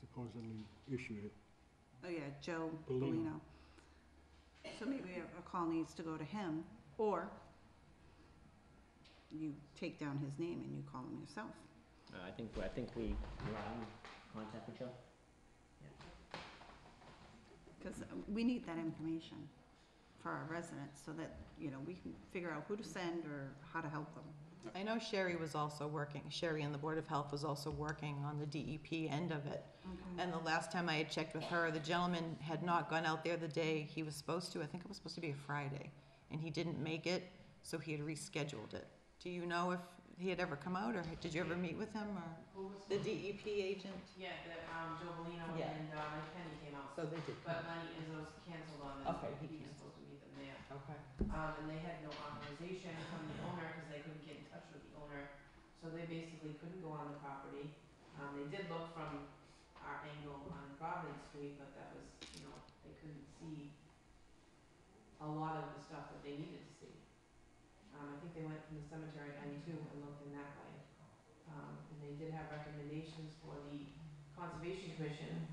supposedly issued it. Oh, yeah, Joe Bellino. Bellino. So maybe a a call needs to go to him, or you take down his name and you call him yourself. Uh, I think, I think we, you want to contact with Joe? Because uh, we need that information for our residents, so that, you know, we can figure out who to send or how to help them. I know Sherry was also working, Sherry and the Board of Health was also working on the DEP end of it. And the last time I had checked with her, the gentleman had not gone out there the day he was supposed to, I think it was supposed to be a Friday, and he didn't make it, so he had rescheduled it. Do you know if he had ever come out, or did you ever meet with him, or Who was the it? DEP agent? Yeah, the, um, Joe Bellino Yeah. and, um, Kenny came out, So they did. but Lenny Izzo's canceled on them, Okay, he he was canceled. supposed to meet them there. Okay. Um, and they had no authorization from the owner, cause they couldn't get in touch with the owner, so they basically couldn't go on the property. Um, they did look from our angle on Providence Street, but that was, you know, they couldn't see a lot of the stuff that they needed to see. Um, I think they went from the cemetery end too and looked in that way. Um, and they did have recommendations for the Conservation Commission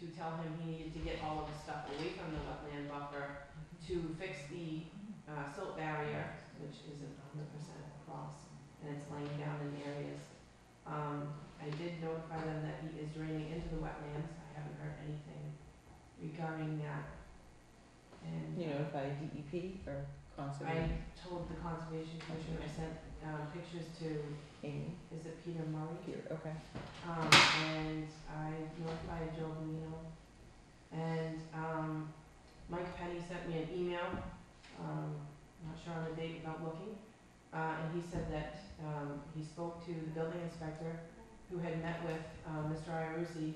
to tell him he needed to get all of the stuff away from the wetland buffer to fix the, uh, silt barrier, which isn't hundred percent across, and it's laying down in areas. Um, I did notify them that he is draining into the wetlands, I haven't heard anything regarding that. And. You notified DEP E or I Conservation, told the conservation commission, I sent, uh, pictures to, Amy? is it Peter Murray? Okay. Um, and I notified Joe Bonino. And, um, Mike Penny sent me an email, um, not sure on the date without looking. Uh, and he said that, um, he spoke to the building inspector who had met with, uh, Mr. Iarussi,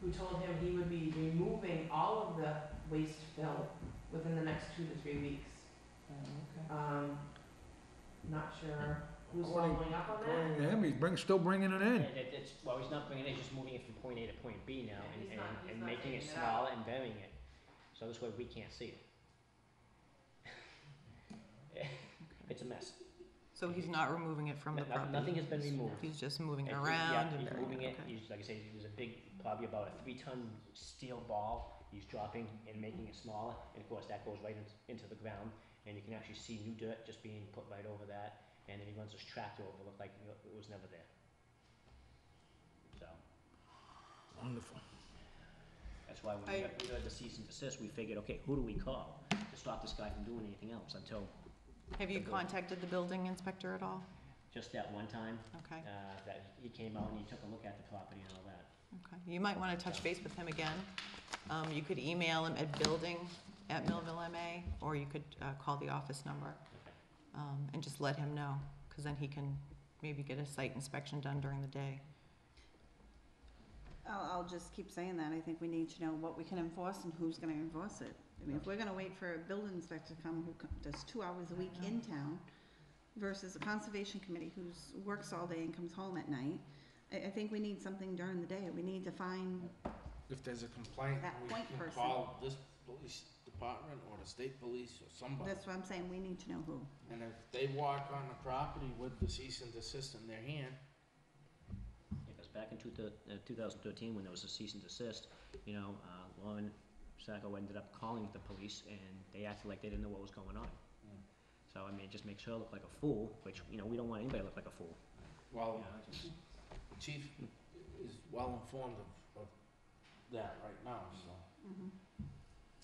who told him he would be removing all of the waste fill within the next two to three weeks. Um, not sure who's According- following up on that. According to him, he's bring, still bringing it Yeah, in. it- it's, well, he's not bringing it, he's just moving it from point A to point B now Yeah, and, he's and, not- he's and not making it taking it out. smaller and burying it. So this way we can't see it. It's a mess. So he's not removing it from No- the no- property? Nothing has been removed. He's just moving it And he- around Yeah, and he's burying moving it, it, okay. he's, like I said, there's a big, probably about a three-ton steel ball, he's dropping and making it smaller, and of course, that goes right into, into the ground, and you can actually see new dirt just being put right over that, and then he runs his tractor over, look like you know, it was never there. So, Wonderful. that's why when I- we got, we got the cease and desist, we figured, okay, who do we call to stop this guy from doing anything else until Have you the building. contacted the building inspector at all? just that one time, Okay. uh, that he came out and he took a look at the property and all that. Okay, you might wanna touch base with him again. Um, you could email him at building@millvillema, or you could, uh, call the office number. Um, and just let him know, cause then he can maybe get a site inspection done during the day. I'll, I'll just keep saying that, I think we need to know what we can enforce and who's gonna enforce it. I mean, if we're gonna wait for a building inspector to come who co- does two hours a week in town versus a conservation committee who's, works all day and comes home at night, I, I think we need something during the day, we need to find, If there's a complaint, That we point can person. call this police department or the state police or somebody. that's what I'm saying, we need to know who. And if they walk on the property with the cease and desist in their hand, Because back in two thou- uh, 2013, when there was a cease and desist, you know, uh, Lauren Sacco ended up calling the police, and they acted like they didn't know what was going on. Mm. So, I mean, it just makes her look like a fool, which, you know, we don't want anybody to look like a fool. you well, know, it's just- the chief is well informed of, of that right now, so. Mm-hmm.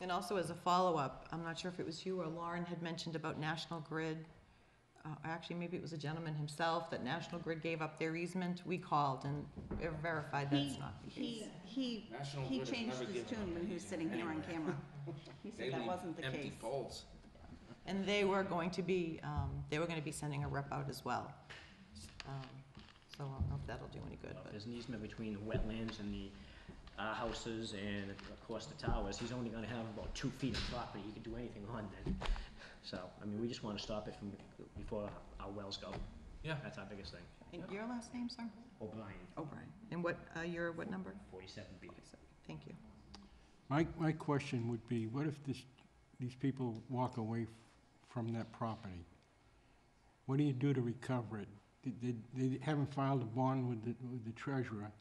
And also as a follow-up, I'm not sure if it was you or Lauren had mentioned about National Grid. Uh, actually, maybe it was a gentleman himself, that National Grid gave up their easement. We called and verified that's He, not the case. he, he, National he Grid has changed never his given tune up when he was anything sitting here on anywhere. camera. He They said that leave wasn't the Empty case. poles. And they were going to be, um, they were gonna be sending a rep out as well. Um, So I don't know if that'll do any good, Well, if but, There's an easement between the wetlands and the uh, houses and of course the towers. He's only gonna have about two feet of property. He can do anything on then. So, I mean, we just wanna stop it from, before our wells go. Yeah. That's our biggest thing. and your last name, sir? O'Brien, O'Brien. And what, uh, your, what number? 47B. Thank you. My, my question would be, what if this, these people walk away f- from that property? What do you do to recover it? Did- did- They, haven't filed a bond with the, with the treasurer.